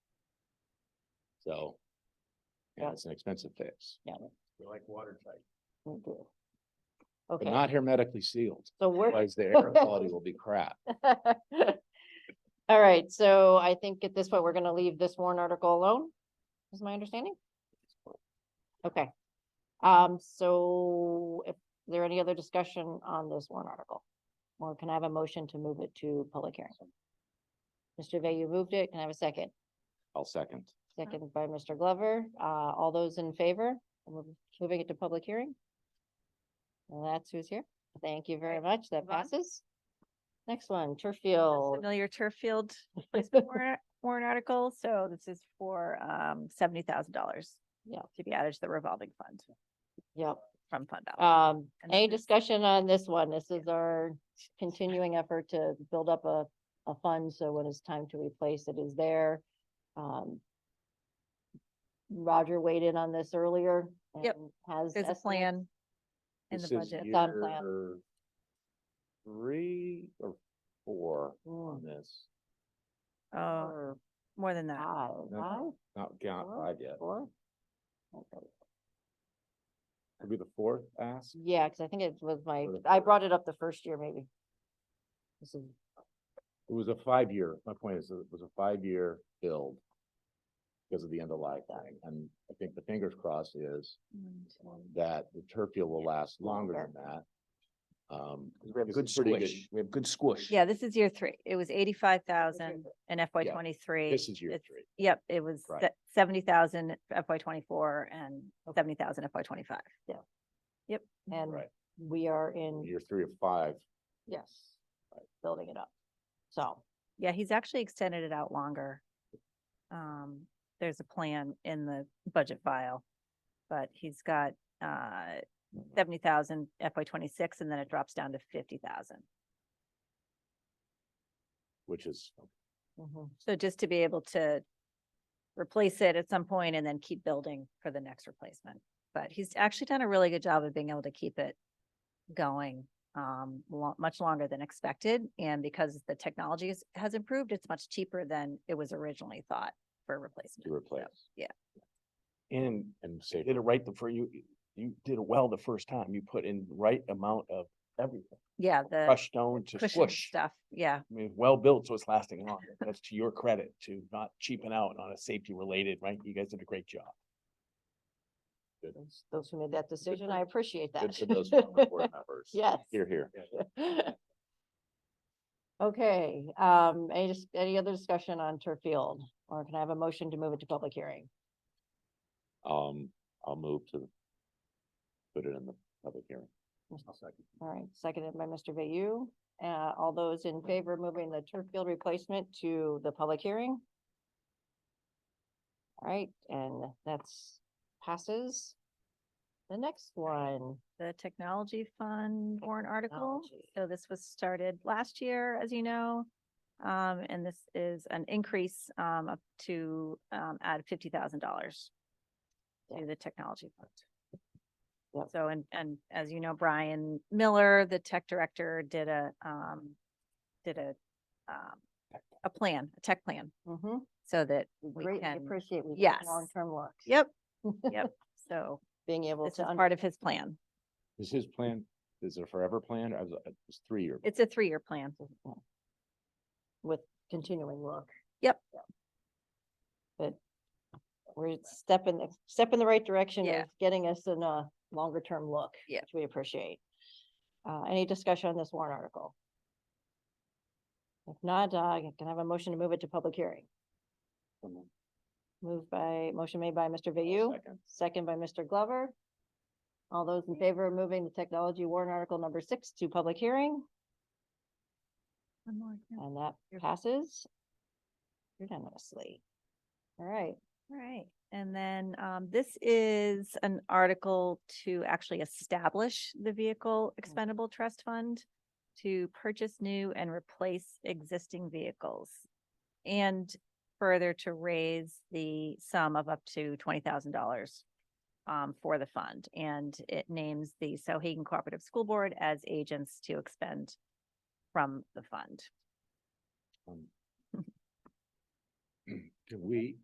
So. Yeah, it's an expensive fix, We like watertight. we do. but Okay, not hermetically sealed, so we're. otherwise the air quality will be crap. All right, so I think at this point, we're gonna leave this warrant article alone, is my understanding? Okay. Um, so if there any other discussion on this warrant article? Or can I have a motion to move it to public hearing? Mr. Vay, you moved it. Can I have a second? I'll second. Second by Mr. Glover. Uh, all those in favor? We're Moving it to public hearing? And that's who's here. Thank you very much. That move on. passes. Next one, turf a field. Familiar turf field warrant warrant article, so this is for um seventy thousand dollars. Yep. To be added to the revolving fund Yep. from fund Uh, balance. Um, And any this is- discussion on this one? This is our continuing effort to build up a, a fund, so when it's time to replace it is there. Um. Roger weighed in on this earlier. Yep. and Has. There's a estimates. plan in the This is budget. It's on plan. year Three or four Mm, on this, Oh, four, more than that. Five, No. five, not count Four? five yet, four? Okay. could be the fourth ask. Yeah, because I think it was my, Or the I third. brought it up the first year maybe. This is, It was a five-year, my point is, that it was a five-year build. Because of the end of life thing, and I think the fingers crossed is that the turf field will last longer than that. Um, We have This good is pretty good. squish. We have good squish. Yeah, this is year three. It was eighty-five thousand in FY Yeah. twenty-three. this is year three, Yep, it was Right. seventy thousand FY twenty-four and seventy thousand FY twenty-five. Yeah. Yep. and right, we are in, year three of five, yes, building it up. So, Yeah, he's actually extended it out longer. Um, there's a plan in the budget file, but he's got uh seventy thousand FY twenty-six and then it drops down to fifty thousand. which is mhm. So just to be able to replace it at some point and then keep building for the next replacement. But he's actually done a really good job of being able to keep it going um lo- much longer than expected. And because the technology has- has improved, it's much cheaper than it was originally thought for replacement. to So- replace. And And you say, did it right the first, you, you did it well the first time. You put in the right amount of everything. Yeah, the Crushed stone to cushion squish. I stuff, yeah, mean, well built, so it's lasting long. That's to your credit to not cheaping out on a safety related, right? You guys did a great job. those- those who made that decision, I appreciate good that. for those former board members. Yes. Here, here. Okay, um, any, dis- any other discussion on turf field? Or can I have a motion to move it to public hearing? Um, I'll move to put it in the public hearing. All right, seconded by Mr. Bayou. Uh, all those in favor of moving the turf field replacement to the public hearing? All right, and that's passes. The next one, the technology fund warrant article. Technology. So this was started last year, as you know. Um, and this is an increase, um, up to, um, add fifty thousand dollars Yeah. to the technology fund. Yep. So, and, and as you know, Brian Miller, the tech director, did a, um, did a, um, a plan, a tech plan, mm-hmm, so that, We greatly can- appreciate we get yes. long-term look. yep, yep. So Being able this to. is un- part of his plan. Is his plan, is it a forever plan? I was, it's three-year. It's a three-year plan. Yeah. With continuing look. Yep. Yeah. But we're stepping, the step in the right direction Yeah. of getting us in a longer term look. Yeah. Which we appreciate. Uh, any discussion on this warrant article? If not, uh, I can have a motion to move it to public hearing. Moved by, motion made by Mr. Vayou, Second. second by Mr. Glover. All those in favor of moving the technology warrant article number six to public hearing? One more, yeah. And that You're- passes unanimously. All right, All right, and then um this is an article to actually establish the vehicle expendable trust fund to purchase new and replace existing vehicles. And further to raise the sum of up to twenty thousand dollars um for the fund. And it names the Sohegan Cooperative School Board as agents to expend from the fund. Um, Can we,